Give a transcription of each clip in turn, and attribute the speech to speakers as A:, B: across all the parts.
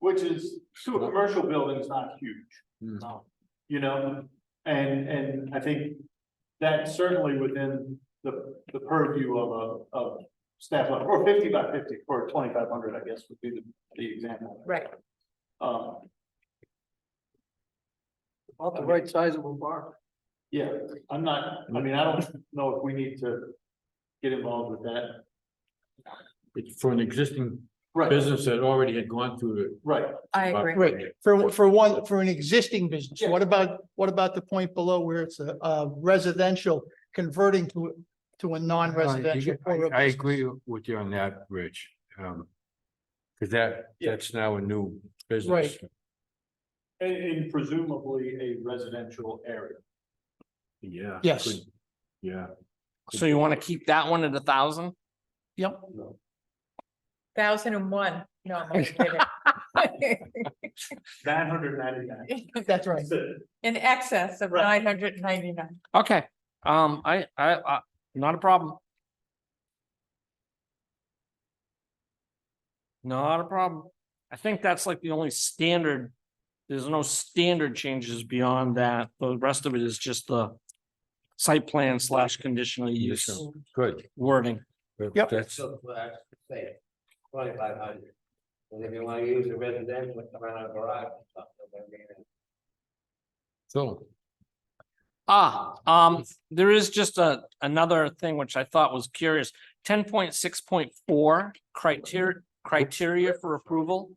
A: which is, to a commercial building is not
B: Hmm.
C: Mm.
A: huge. You know, and, and I think that's certainly within the, the purview of a, of staff, level, or fifty by fifty, or twenty-five hundred, I guess, would be the, the example.
D: Right.
A: Um,
C: About the right size of a bar.
A: yeah, I'm not, I mean, I don't know if we need to get involved with that.
B: It's for an existing
A: Right,
B: business that already had gone through
A: right.
D: I
B: the.
D: agree.
C: Right, for, for one, for an existing business, what about, what about the point below where it's a, a residential converting to, to a non-residential?
B: Uh, I
C: or a
B: I
C: business?
B: agree with you on that, Rich. Um, cause that, that's now a new business.
A: And, and presumably a residential area.
B: Yeah.
C: Yes.
B: could- Yeah,
E: So you want to keep that one at a thousand?
C: Yep,
D: Thousand and one, no, I'm only kidding.
A: Nine hundred ninety-nine.
C: that's right.
D: In excess of
A: Right.
D: nine hundred and ninety-nine.
E: Okay, um, I, I, I, not a problem. Not a problem. I think that's like the only standard. There's no standard changes beyond that. The rest of it is just the site plan slash conditional use
B: Conditional. good.
E: wording.
B: But
C: Yep.
B: That's,
F: So, uh, say, twenty-five hundred. And if you wanna use a residential, it's around a garage or something, I mean,
B: so,
E: Ah, um, there is just a, another thing which I thought was curious. Ten point six point four criteria, criteria for approval.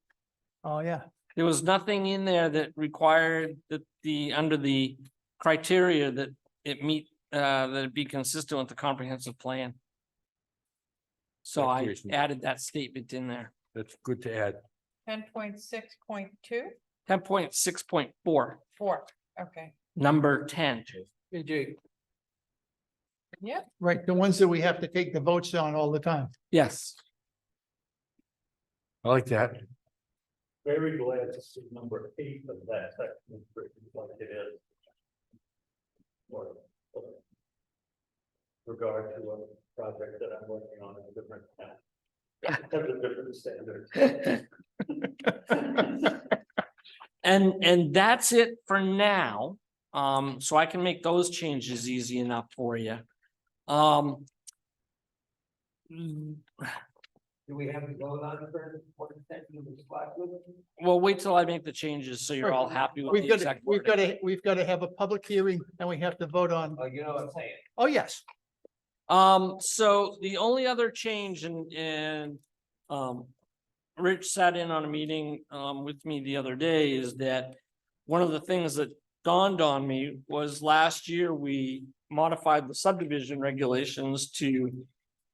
C: Oh, yeah.
E: There was nothing in there that required that the, under the criteria that it meet, uh, that it be consistent with the comprehensive plan. So I
B: Criteria.
E: added that statement in there.
B: that's good to add.
D: Ten point six point two,
E: Ten point six point four,
D: four, okay.
E: number ten.
D: Yeah,
C: Right, the ones that we have to take the votes on all the time.
E: Yes.
B: I like that.
A: Very glad to see number eight of that section, is written like it is. Or- or Regard to a project that I'm working on in a different town. Has a different standard.
E: And, and that's it for now. Um, so I can make those changes easy enough for you. Um. mm,
F: Do we have to go on for one section of the slide with?
E: Well, wait till I make the changes so you're all happy with
C: We've
E: the
C: got, to
E: exact.
C: we've
E: wording.
C: got to, we've got to have a public hearing and we have to vote on,
F: Oh, you know what I'm saying?
C: oh, yes.
E: Um, so the only other change and, and, um. Rich sat in on a meeting, um, with me the other day is that. One of the things that dawned on me was last year we modified the subdivision regulations to.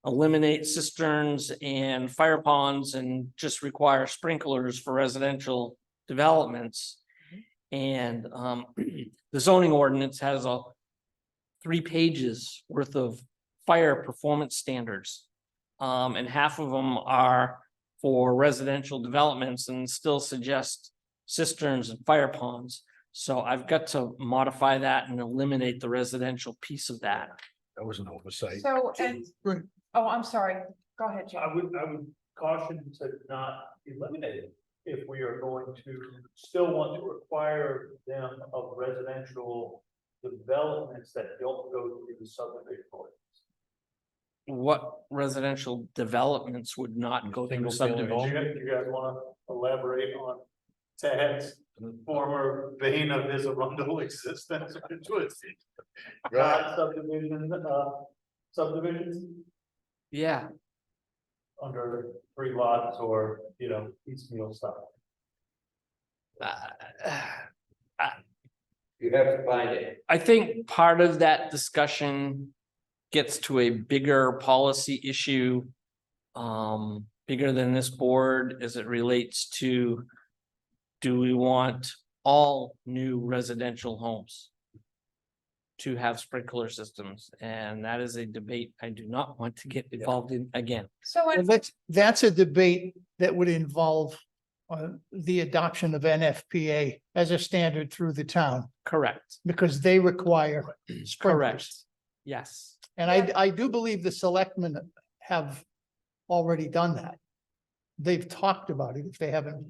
E: Eliminate cisterns and fire ponds and just require sprinklers for residential developments. And, um, the zoning ordinance has a. Three pages worth of fire performance standards. Um, and half of them are for residential developments and still suggest cisterns and fire ponds. So I've got to modify that and eliminate the residential piece of that.
B: That was an oversight.
D: so, and,
C: Right.
D: oh, I'm sorry, go ahead, Jim.
A: I would, I would caution to not eliminate it if we are going to still want to require them of residential developments that don't go through the subdivision ordinance.
E: What residential developments would not go through
B: Single family.
A: Do
E: subdivision?
A: you, do you guys wanna elaborate on Ted's former vein of his arundel existence, which was not subdivision, uh, subdivisions
E: Yeah,
A: under three lots or, you know, piecemeal style?
E: uh,
F: You have to find it.
E: I think part of that discussion gets to a bigger policy issue. Um, bigger than this board as it relates to. Do we want all new residential homes? To have sprinkler systems, and that is a debate I do not want to get involved in again.
D: So,
C: Well,
D: and-
C: that's, that's a debate that would involve uh, the adoption of NFPA as a standard through the town
E: Correct,
C: because they require sprinklers.
E: correct. Yes,
C: And I, I do believe the selectmen have already done that. They've talked about it if they haven't